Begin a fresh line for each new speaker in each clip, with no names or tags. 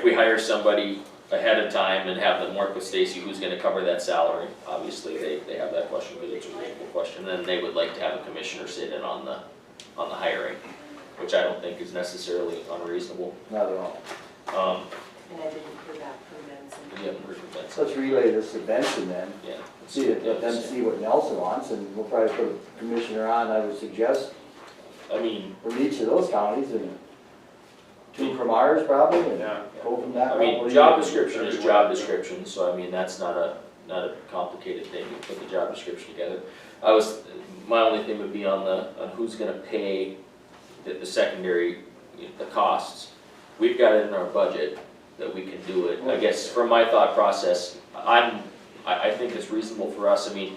If we hire somebody ahead of time and have them work with Stacy, who's gonna cover that salary? Obviously, they, they have that question, because it's a reasonable question, and they would like to have a commissioner sit in on the, on the hiring, which I don't think is necessarily unreasonable.
Not at all.
Um,
And I didn't hear back from them,
we
so.
haven't heard from Benson,
So let's relay this to Benson then,
yeah.
see, it- let them see what Nelson wants, and we'll probably put a commissioner on, I would suggest,
I mean,
from each of those counties, and two from ours probably, and
Yeah.
go from that.
I
route. What
mean,
do
job
you-
description is job description, so I mean, that's not a, not a complicated thing, you put the job description together. I was, my only thing would be on the, on who's gonna pay the, the secondary, you know, the costs. We've got it in our budget that we can do it, I guess, from my thought process, I'm, I, I think it's reasonable for us, I mean,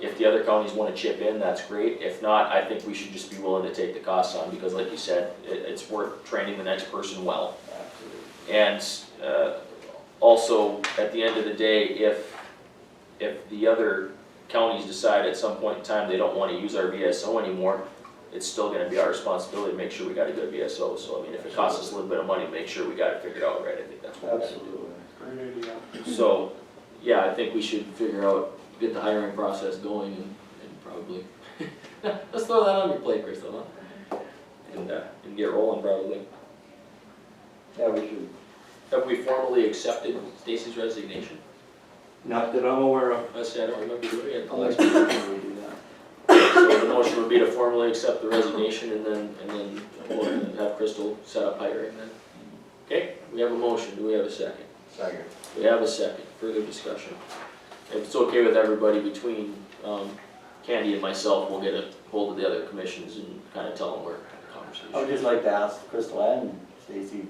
if the other counties wanna chip in, that's great, if not, I think we should just be willing to take the costs on, because like you said, it, it's worth training the next person well.
Absolutely.
And uh, also, at the end of the day, if, if the other counties decide at some point in time they don't want to use our VSO anymore, it's still gonna be our responsibility to make sure we got a good VSO. So I mean, if it costs us a little bit of money, make sure we got it figured out right. I think that's what we gotta do.
Absolutely.
Great idea.
So, yeah, I think we should figure out, get the hiring process going and, and probably, let's throw that on your plate, Chris, huh? And, uh, and get rolling probably.
Yeah, we should,
Have we formally accepted Stacy's resignation?
Not that I'm aware of.
I said, I don't remember doing it.
I'll let you know when we do that.
So the motion would be to formally accept the resignation and then, and then we'll have Crystal set up hiring then. Okay, we have a motion, do we have a second?
Second.
We have a second, further discussion. If it's okay with everybody between, um, Candy and myself, we'll get a hold of the other commissions and kind of tell them where the
I would
conversation.
just like to ask Crystal and Stacy,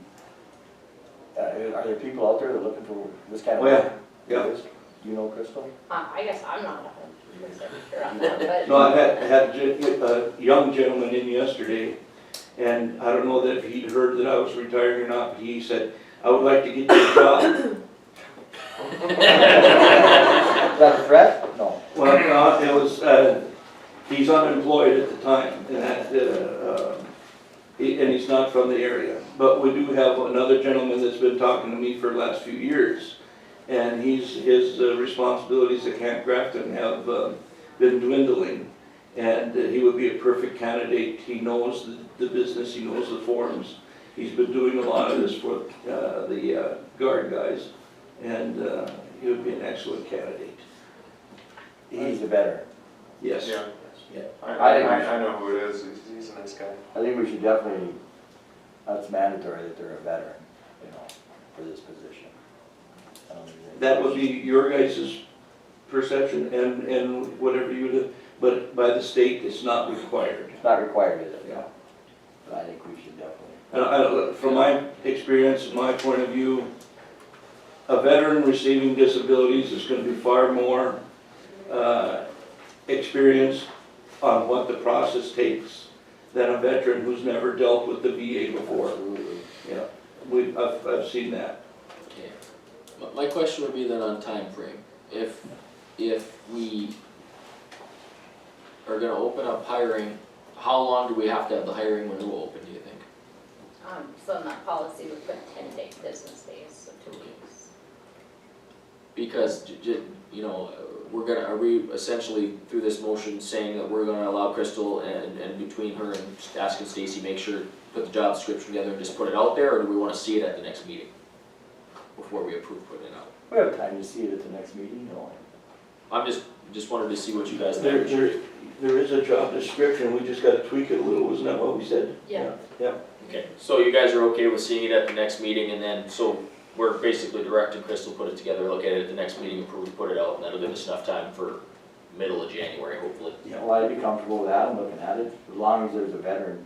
uh, are there people out there that are looking for this kind of?
Oh, yeah. Yeah.
You know Crystal?
Uh, I guess I'm not a hundred percent sure on that,
No,
but
I had, had gen- a young gentleman in yesterday, and I don't know that if he'd heard that I was retired or not, but he said, I would like to get you a job.
Is that a threat? No.
Well, no, it was, uh, he's unemployed at the time, and that, uh, um, he- and he's not from the area. But we do have another gentleman that's been talking to me for the last few years, and he's, his uh, responsibilities at Camp Grafton have uh, been dwindling. And uh, he would be a perfect candidate, he knows the- the business, he knows the forums. He's been doing a lot of this for uh, the uh, guard guys, and uh, he would be an excellent candidate,
He's the better.
yes.
Yeah.
Yeah.
I, I, I- I know who it is, he's, he's a nice guy.
I think we should definitely, that's mandatory that they're a veteran, you know, for this position. I don't think-
That would be your guys' perception and, and whatever you, do, but by the state, it's not required.
It's not required, is it?
Yeah.
But I think we should definitely.
And I, from my experience, my point of view, a veteran receiving disabilities is gonna be far more, uh, experienced on what the process takes than a veteran who's never dealt with the VA before.
Absolutely.
Yeah, we, I've, I've seen that.
Okay. My, my question would be then on time frame. if, if we are gonna open up hiring, how long do we have to have the hiring window open, do you think?
um, so in that policy, we put ten day business days, so two weeks.
Because, j- j- you know, uh, we're gonna, are we essentially through this motion saying that we're gonna allow Crystal and, and between her and asking Stacy, make sure, put the job description together and just put it out there, or do we wanna see it at the next meeting? Before we approve putting it out?
We have time to see it at the next meeting, no?
I'm just, just wanted to see what you guys
There,
think.
there, there is a job description, we just gotta tweak it a little, isn't that what we said?
Yeah.
Yeah.
Okay, so you guys are okay with seeing it at the next meeting and then, so we're basically directing Crystal put it together, look at it at the next meeting, approve, put it out, and that'll give us enough time for middle of January, hopefully.
Yeah.
Well, I'd be comfortable with that, I'm looking at it, as long as there's a veteran,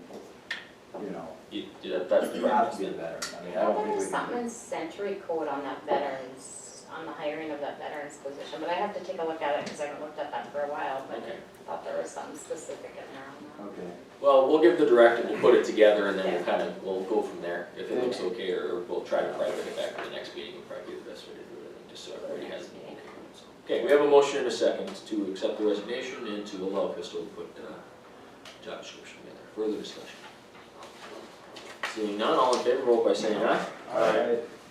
you know,
You, you- that- that's the
you have to be a
preference.
veteran, I mean, I
I
don't
thought there
think we
was
can.
something in century code on that veterans, on the hiring of that veterans position, but I have to take a look at it, cause I haven't looked at that for a while, but
Okay.
I thought there was something specific in there on that.
Okay,
Well, we'll give the directive, we'll put it together, and then we'll kind of, we'll go from there, if it looks okay, or we'll try to probably bring it back to the next meeting, would probably be the best way to do it, I think, just so everybody has it. okay. so. Okay, we have a motion and a second to accept the resignation and to allow Crystal to put, uh, job description together, further discussion. Seeing none, all in favor, vote by saying aye.
all right,